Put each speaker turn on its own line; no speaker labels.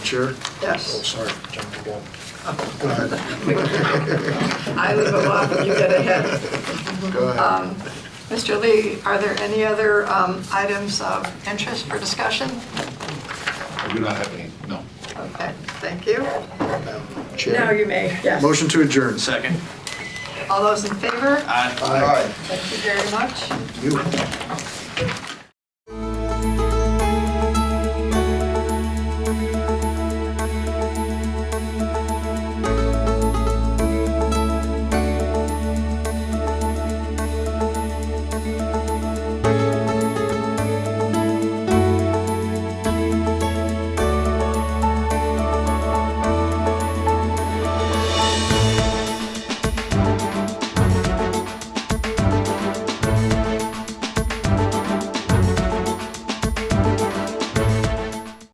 Chair? Oh,
Yes,
sorry, jumped the gun. Go ahead.
I leave it off and you get ahead.
Go ahead.
Um, Mr. Lee, are there any other um, items of interest for discussion?
I do not have any, no.
Okay, thank you.
Madam
Now
Chair?
you may, yes.
Motion to adjourn.
Second.
All those in favor?
Aye.
Aye.
Thank you very much.
You.